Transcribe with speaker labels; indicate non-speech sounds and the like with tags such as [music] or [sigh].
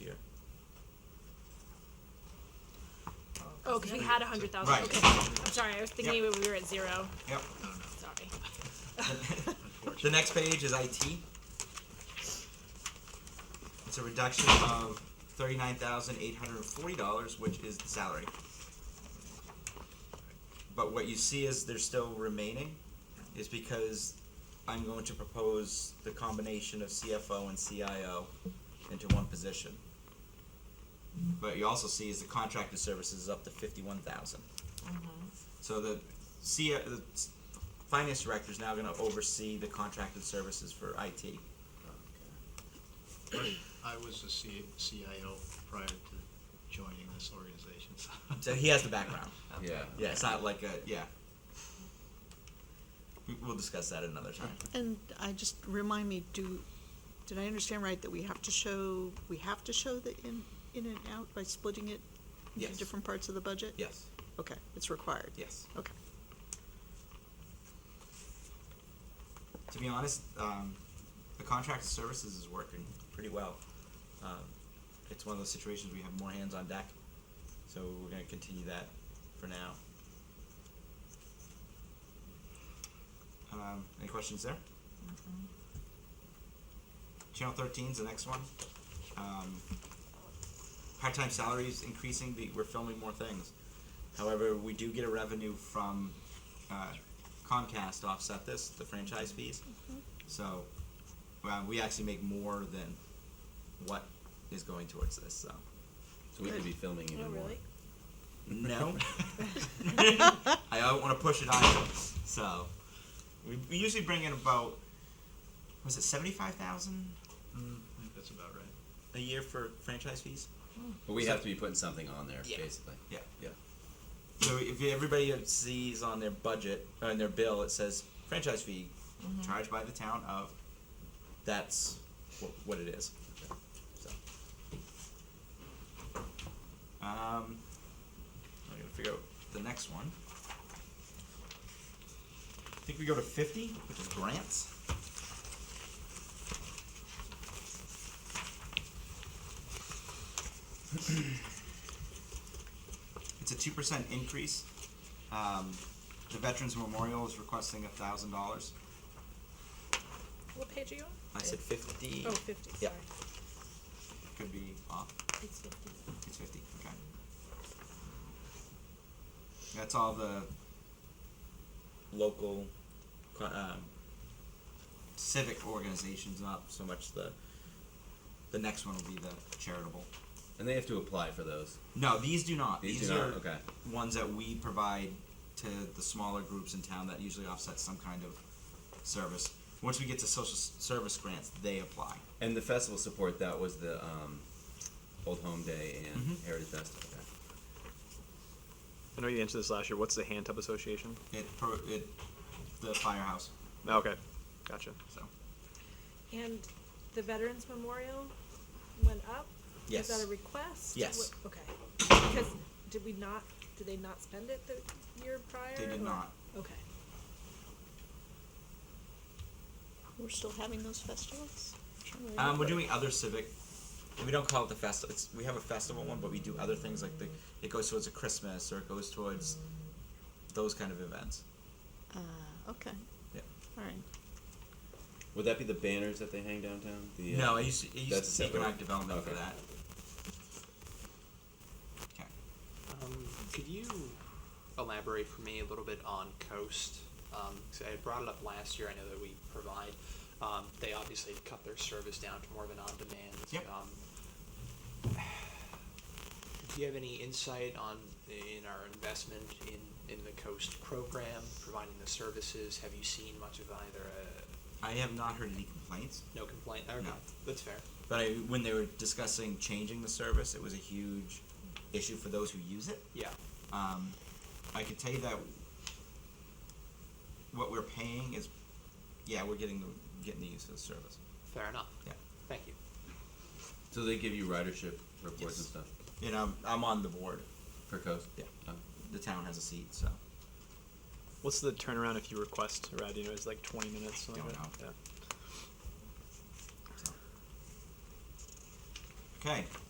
Speaker 1: year.
Speaker 2: Oh, because we had a hundred thousand,
Speaker 1: Right.
Speaker 2: okay. I'm sorry, I was thinking
Speaker 1: Yep.
Speaker 2: maybe we were at zero,
Speaker 1: Yep.
Speaker 2: sorry.
Speaker 1: [laughs] The next page is IT. It's a reduction of thirty-nine thousand eight hundred and forty dollars, which is the salary. But what you see is there's still remaining, is because I'm going to propose the combination of CFO and CIO into one position. But you also see is the contracted services is up to fifty-one thousand. So the C, the s- finance director is now gonna oversee the contracted services for IT.
Speaker 3: I was the C- CIO prior to joining this organization, so.
Speaker 1: So
Speaker 3: [laughs]
Speaker 1: he has the background.
Speaker 4: Yeah.
Speaker 1: Yeah, it's not like a, yeah. We- We'll discuss that another time.
Speaker 5: And I just, remind me, do, did I understand right that we have to show, we have to show the in, in and out by splitting it
Speaker 1: Yes.
Speaker 5: into different parts of the budget?
Speaker 1: Yes,
Speaker 5: Okay, it's required?
Speaker 1: yes.
Speaker 5: Okay.
Speaker 1: To be honest, um, the contracted services is working pretty well. Um, it's one of those situations we have more hands on deck, so we're gonna continue that for now. Um, any questions there? Channel thirteen's the next one. Um, part-time salaries increasing, the, we're filming more things. However, we do get a revenue from, uh, Comcast to offset this, the franchise fees. So, well, we actually make more than what is going towards this, so.
Speaker 4: So we could be filming even
Speaker 5: Oh,
Speaker 4: more.
Speaker 1: No. I don't wanna push it on you, so. We, we usually bring in about, was it seventy-five thousand
Speaker 3: Mm, I think that's about right.
Speaker 1: a year for franchise fees?
Speaker 4: But we
Speaker 1: So-
Speaker 4: have to be putting something on there,
Speaker 1: Yeah.
Speaker 4: basically.
Speaker 1: Yeah.
Speaker 4: Yeah.
Speaker 1: So if everybody sees on their budget, on their bill, it says franchise fee charged by the town of, that's wh- what it is. So. Um, I'm gonna figure out the next one. I think we go to fifty, which is grants. It's a two percent increase. Um, the Veterans Memorial is requesting a thousand dollars.
Speaker 2: What page are you on?
Speaker 1: I said fifty.
Speaker 2: Oh, fifty,
Speaker 1: Yeah.
Speaker 2: sorry.
Speaker 1: Could be off.
Speaker 2: It's fifty.
Speaker 1: It's fifty, okay. That's all the local, co- um, civic organizations, not so much the, the next one will be the charitable.
Speaker 4: And they have to apply for those.
Speaker 1: No, these do not.
Speaker 4: These do not?
Speaker 1: are
Speaker 4: Okay.
Speaker 1: Ones that we provide to the smaller groups in town that usually offset some kind of service. Once we get to social s- service grants, they apply.
Speaker 4: And the festival support, that was the um, Old Home Day and
Speaker 1: Mhm.
Speaker 4: Heritage Festival. Okay.
Speaker 6: I know you answered this last year. What's the hand tub association? Oh,
Speaker 1: It, pro- it, the firehouse,
Speaker 6: Okay, gotcha.
Speaker 1: so,
Speaker 7: And the Veterans Memorial went up?
Speaker 1: yes.
Speaker 7: Is that a request?
Speaker 1: Yes.
Speaker 7: What- Okay, because did we not, did they not spend it the year prior?
Speaker 1: They did
Speaker 7: or-
Speaker 1: not.
Speaker 7: Okay.
Speaker 5: We're still having those festivals?
Speaker 1: Um, we're doing other civic. We don't call it the festival. It's we have a festival one, but we do other things like the it goes towards a Christmas or it goes towards those kind of events.
Speaker 5: Uh, okay,
Speaker 1: Yeah.
Speaker 5: all right.
Speaker 4: Would that be the banners that they hang downtown? The, uh,
Speaker 1: No, I used to, I used
Speaker 4: That's
Speaker 1: to
Speaker 4: separate.
Speaker 1: economic development for
Speaker 4: Okay.
Speaker 1: that. Okay.
Speaker 8: Um, could you elaborate for me a little bit on Coast? Um, 'cause I brought it up last year. I know that we provide. Um, they obviously cut their service down to more of an on-demand.
Speaker 1: Yep.
Speaker 8: Um, do you have any insight on in our investment in, in the Coast program, providing the services? Have you seen much of either? A,
Speaker 1: I have not heard any complaints,
Speaker 8: no complaint. Okay,
Speaker 1: No.
Speaker 8: that's fair.
Speaker 1: but I, when they were discussing changing the service, it was a huge issue for those who use it.
Speaker 8: Yeah.
Speaker 1: Um, I can tell you that what we're paying is, yeah, we're getting the getting the use of the service.
Speaker 8: Fair enough.
Speaker 1: Yeah.
Speaker 8: Thank you.
Speaker 4: So they give you ridership reports
Speaker 1: Yes.
Speaker 4: and stuff
Speaker 1: And I'm I'm on the board.
Speaker 4: for Coast?
Speaker 1: Yeah.
Speaker 4: Oh.
Speaker 1: the town has a seat, so
Speaker 6: What's the turnaround if you request a ride? You know, it's like 20 minutes. something
Speaker 1: Don't
Speaker 6: like that?
Speaker 1: so. Okay,